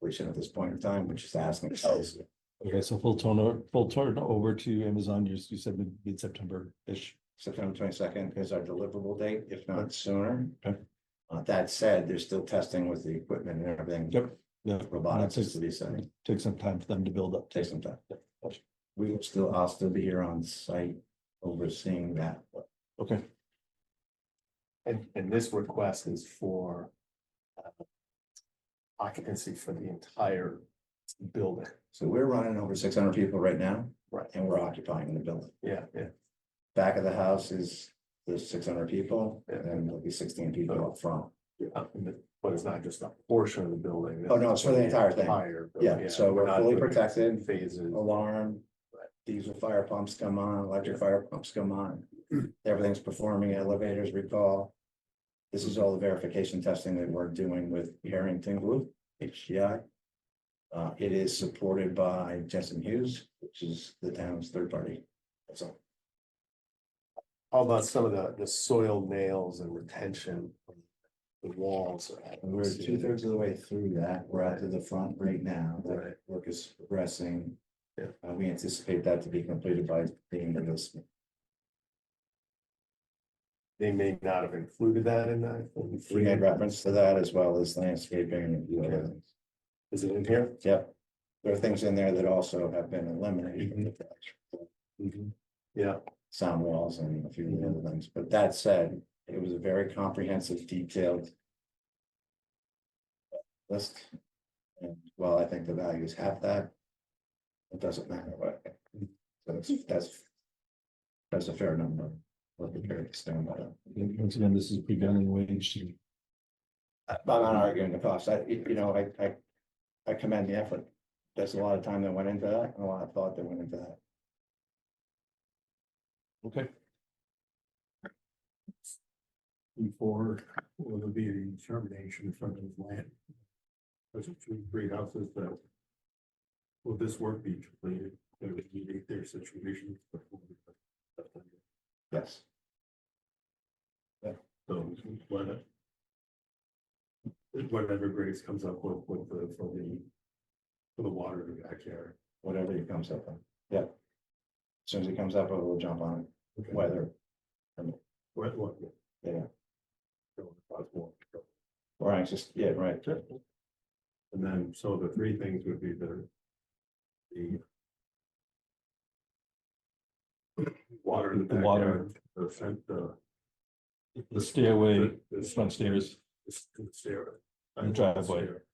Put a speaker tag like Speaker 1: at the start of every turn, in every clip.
Speaker 1: situation at this point in time, which is asking ourselves.
Speaker 2: Okay, so full turnover, full turnover to Amazon, you you said mid- mid-September-ish.
Speaker 1: September twenty-second is our deliverable date, if not sooner.
Speaker 2: Okay.
Speaker 1: Uh, that said, there's still testing with the equipment and everything.
Speaker 2: Yep. Yeah.
Speaker 1: Robotics
Speaker 2: That
Speaker 1: is
Speaker 2: takes-
Speaker 1: to be sent,
Speaker 2: Take some time for them to build up.
Speaker 1: take some time.
Speaker 2: Yep.
Speaker 1: We will still, I'll still be here on site overseeing that.
Speaker 2: Okay,
Speaker 3: And, and this request is for uh, occupancy for the entire building.
Speaker 1: So we're running over six hundred people right now.
Speaker 3: Right.
Speaker 1: And we're occupying the building.
Speaker 3: Yeah, yeah.
Speaker 1: Back of the house is the six hundred people
Speaker 3: Yeah.
Speaker 1: and there'll be sixteen people up front.
Speaker 3: Uh, But it's not just a portion of the building.
Speaker 1: Oh, no, it's for the entire thing.
Speaker 3: Entire building,
Speaker 1: Yeah, so we're
Speaker 3: not
Speaker 1: fully
Speaker 3: doing
Speaker 1: protected,
Speaker 3: Phases.
Speaker 1: alarm.
Speaker 3: Right.
Speaker 1: Diesel fire pumps come on, electric fire pumps come on, everything's performing, elevators recall. This is all the verification testing that we're doing with Harrington Group, HCI. Uh, it is supported by Jensen Hughes, which is the town's third party. That's all.
Speaker 3: How about some of the, the soil nails and retention? from The walls.
Speaker 1: And We're two thirds of the way through that. We're out to the front right now. That
Speaker 3: Right.
Speaker 1: work is progressing.
Speaker 3: Yeah.
Speaker 1: Uh, we anticipate that to be completed by the end of this.
Speaker 3: They may not have included that in that.
Speaker 1: We made reference to that as well as landscaping and a few other
Speaker 3: Okay.
Speaker 1: things.
Speaker 3: Is it in here?
Speaker 1: Yep. There are things in there that also have been eliminated, from the project,
Speaker 2: Mm-hmm.
Speaker 3: Yeah,
Speaker 1: sound walls and a few of the other things. But that said, it was a very comprehensive, detailed list. And while I think the values have that, it doesn't matter what. So that's, that's, that's a fair number. We're prepared to stand by that.
Speaker 2: And once again, this is prevailing wage.
Speaker 1: I- uh, I'm not arguing the cost, I, you you know, I, I, I commend the effort. There's a lot of time that went into that, and a lot of thought that went into that.
Speaker 2: Okay,
Speaker 4: before will be the determination from the land. Those are two great houses that. Will this work be completed? They would meet their situation.
Speaker 1: Yes.
Speaker 4: So whatever. Whatever Grace comes up with, with the, for the. For the water in the backyard.
Speaker 1: whatever it comes up on. Yeah. As Soon as it comes up, I will jump on it, whether,
Speaker 4: What, what?
Speaker 1: Yeah.
Speaker 4: So, possible.
Speaker 1: or anxious, yeah, right.
Speaker 4: And then, so the three things would be the. The. Water in the
Speaker 2: The water.
Speaker 4: backyard, the scent, the.
Speaker 2: the stairway,
Speaker 4: The- the-
Speaker 2: front stairs,
Speaker 4: the stair-
Speaker 2: The driveway.
Speaker 4: stair.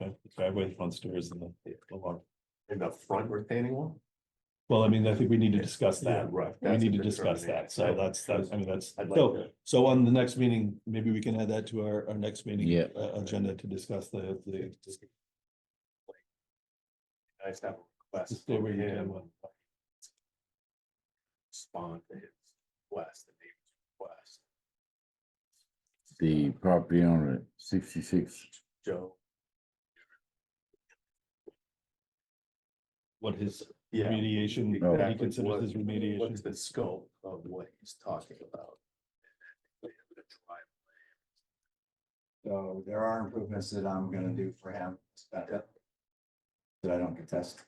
Speaker 2: uh, driveway, front stairs and the the lawn.
Speaker 3: in the front retaining wall?
Speaker 2: Well, I mean, I think we need to discuss that.
Speaker 3: right.
Speaker 2: We need to discuss that. So that's, that's, I mean, that's,
Speaker 3: I'd like
Speaker 2: so
Speaker 3: to-
Speaker 2: So on the next meeting, maybe we can add that to our, our next meeting.
Speaker 5: Yeah.
Speaker 2: uh, Agenda to discuss the, the,
Speaker 3: Nice to have a
Speaker 2: the
Speaker 3: request.
Speaker 2: stairway.
Speaker 3: from him,
Speaker 2: demo.
Speaker 3: Respond to his request, the neighbor's request,
Speaker 5: the property owner, sixty-six,
Speaker 3: Joe.
Speaker 2: What his
Speaker 3: Yeah.
Speaker 2: remediation,
Speaker 5: No.
Speaker 2: what he
Speaker 3: exactly.
Speaker 2: considers
Speaker 3: What-
Speaker 2: his remediation.
Speaker 3: What's the scope of what he's talking about? They have to try
Speaker 1: So there are improvements that I'm gonna do for him. That that I don't contest.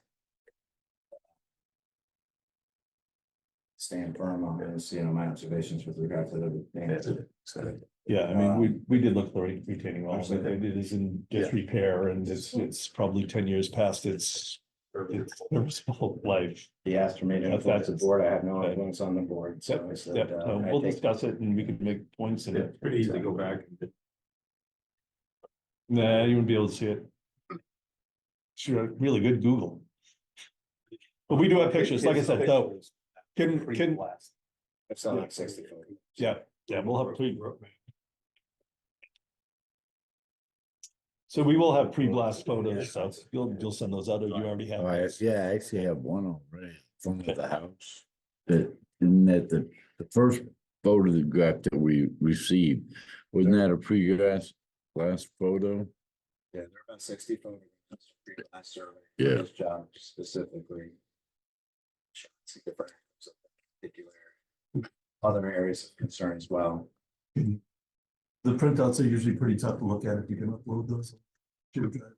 Speaker 1: Stand firm on this, you know, my observations with regard to the.
Speaker 3: it. So,
Speaker 2: Yeah, I
Speaker 3: uh,
Speaker 2: mean, we, we did look for re- retaining walls, but
Speaker 1: Absolutely.
Speaker 2: it is in disrepair and it's, it's probably ten years past its, its serviceable life.
Speaker 1: He asked for me to
Speaker 2: That's-
Speaker 1: influence the
Speaker 2: that's-
Speaker 1: board. I have no
Speaker 2: Okay.
Speaker 1: influence on the board, so I
Speaker 2: Yeah,
Speaker 1: said. uh,
Speaker 2: so
Speaker 1: I
Speaker 2: we'll
Speaker 1: think-
Speaker 2: discuss it and we can make points in it.
Speaker 4: It's pretty easy to go back. and
Speaker 2: Nah, you wouldn't be able to see it. Sure, really good Google. But we do have pictures, like I said, though,
Speaker 3: Pictures,
Speaker 2: can, can,
Speaker 3: pre-blast.
Speaker 1: It's
Speaker 3: uh,
Speaker 1: not like sixty foot.
Speaker 2: Yeah, yeah, we'll have pre. So we will have pre-blast photos, so you'll, you'll send those out, or you already have.
Speaker 5: oh, I, yeah, I actually have one already, from the house. That, isn't that the, the first photograph that we received, wasn't that a pre-grass, last photo?
Speaker 1: Yeah, there have been sixty photographs for your last survey.
Speaker 5: Yeah.
Speaker 1: This job specifically. shots of different types of particular Other areas of concern as well.
Speaker 2: The printouts are usually pretty tough to look at if you can upload those. Should